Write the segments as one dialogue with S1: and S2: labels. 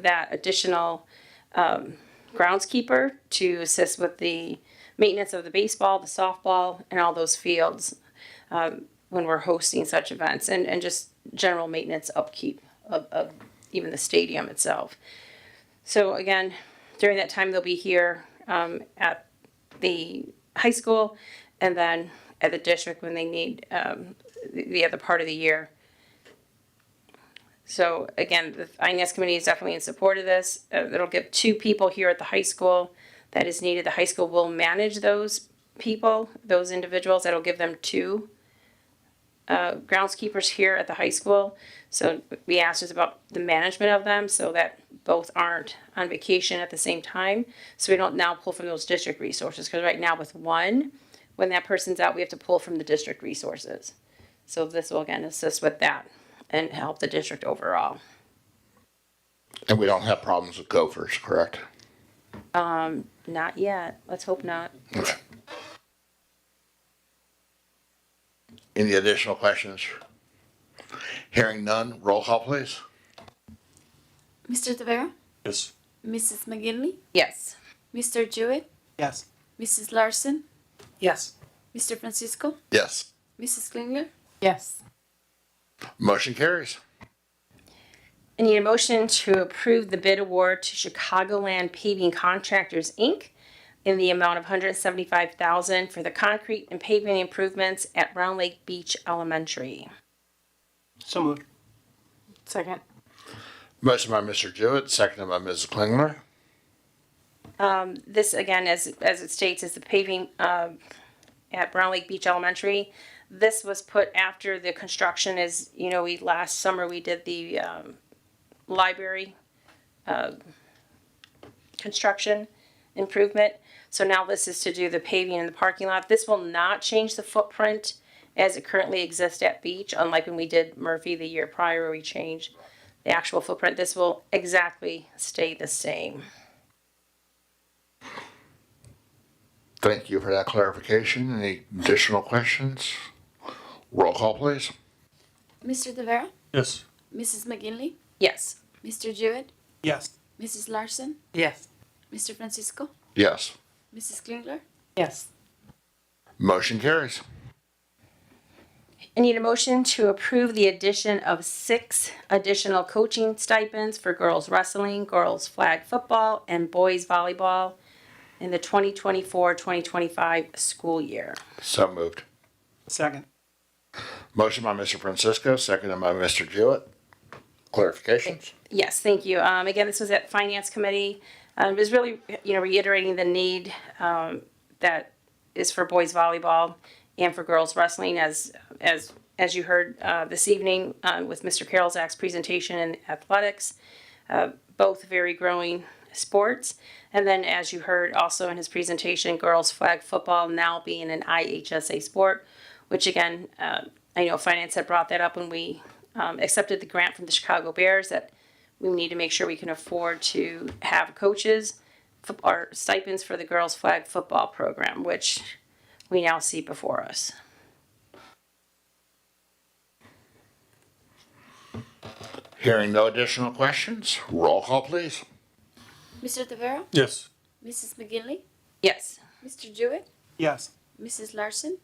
S1: that additional um, groundskeeper to assist with the maintenance of the baseball, the softball, and all those fields um, when we're hosting such events, and, and just general maintenance upkeep of, of even the stadium itself. So again, during that time, they'll be here um, at the high school and then at the district when they need um, the, the other part of the year. So again, the INS committee is definitely in support of this. Uh, it'll give two people here at the high school that is needed. The high school will manage those people, those individuals. That'll give them two uh, groundskeepers here at the high school. So we asked us about the management of them so that both aren't on vacation at the same time. So we don't now pull from those district resources because right now with one, when that person's out, we have to pull from the district resources. So this will again assist with that and help the district overall.
S2: And we don't have problems with gophers, correct?
S1: Not yet. Let's hope not.
S2: Okay. Any additional questions? Hearing none, roll call please.
S3: Mr. Tavera?
S4: Yes.
S3: Mrs. McGinley?
S1: Yes.
S3: Mr. Jewett?
S4: Yes.
S3: Mrs. Larson?
S4: Yes.
S3: Mr. Francisco?
S2: Yes.
S3: Mrs. Klingler?
S5: Yes.
S2: Motion carries.
S1: I need a motion to approve the bid award to Chicagoland Paving Contractors, Inc. in the amount of hundred seventy-five thousand for the concrete and paving improvements at Round Lake Beach Elementary.
S4: So moved.
S5: Second.
S2: Motion by Mr. Jewett, seconded by Mrs. Klingler.
S1: This, again, as, as it states, is the paving, um, at Brown Lake Beach Elementary. This was put after the construction is, you know, we, last summer, we did the, um, library, uh, construction improvement. So now this is to do the paving in the parking lot. This will not change the footprint as it currently exists at Beach, unlike when we did Murphy the year prior, where we changed the actual footprint. This will exactly stay the same.
S2: Thank you for that clarification. Any additional questions? Roll call please.
S3: Mr. Tavera?
S4: Yes.
S3: Mrs. McGinley?
S1: Yes.
S3: Mr. Jewett?
S4: Yes.
S3: Mrs. Larson?
S5: Yes.
S3: Mr. Francisco?
S2: Yes.
S3: Mrs. Klingler?
S5: Yes.
S2: Motion carries.
S1: I need a motion to approve the addition of six additional coaching stipends for girls wrestling, girls flag football, and boys volleyball in the 2024-2025 school year.
S2: So moved.
S4: Second.
S2: Motion by Mr. Francisco, seconded by Mr. Jewett. Clarifications?
S1: Yes, thank you. Um, again, this was at Finance Committee. Um, it was really, you know, reiterating the need, um, that is for boys volleyball and for girls wrestling as, as, as you heard, uh, this evening, uh, with Mr. Carolzak's presentation in athletics. Uh, both very growing sports. And then as you heard also in his presentation, girls flag football now being an IHSA sport, which again, uh, I know finance had brought that up when we, um, accepted the grant from the Chicago Bears that we need to make sure we can afford to have coaches fo- or stipends for the girls flag football program, which we now see before us.
S2: Hearing no additional questions, roll call please.
S3: Mr. Tavera?
S4: Yes.
S3: Mrs. McGinley?
S1: Yes.
S3: Mr. Jewett?
S4: Yes.
S3: Mrs. Larson?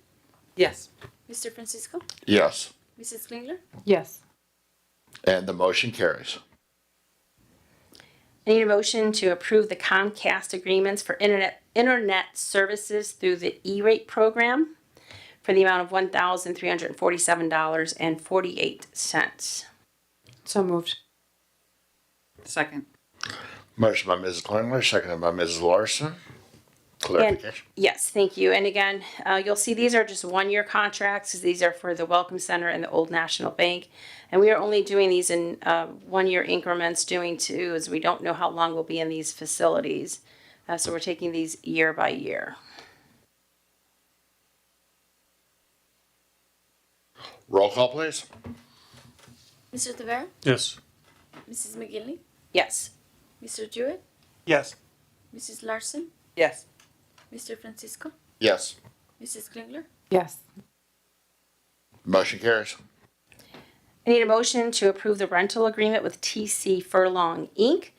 S5: Yes.
S3: Mr. Francisco?
S2: Yes.
S3: Mrs. Klingler?
S5: Yes.
S2: And the motion carries.
S1: I need a motion to approve the Comcast agreements for internet, internet services through the E-rate program for the amount of one thousand three hundred and forty-seven dollars and forty-eight cents.
S5: So moved. Second.
S2: Motion by Mrs. Klingler, seconded by Mrs. Larson. Clarification?
S1: Yes, thank you. And again, uh, you'll see these are just one-year contracts. These are for the Welcome Center and the Old National Bank. And we are only doing these in, uh, one-year increments, doing two, as we don't know how long we'll be in these facilities. Uh, so we're taking these year by year.
S2: Roll call please.
S3: Mr. Tavera?
S4: Yes.
S3: Mrs. McGinley?
S1: Yes.
S3: Mr. Jewett?
S4: Yes.
S3: Mrs. Larson?
S5: Yes.
S3: Mr. Francisco?
S2: Yes.
S3: Mrs. Klingler?
S5: Yes.
S2: Motion carries.
S1: I need a motion to approve the rental agreement with TC Furlong, Inc.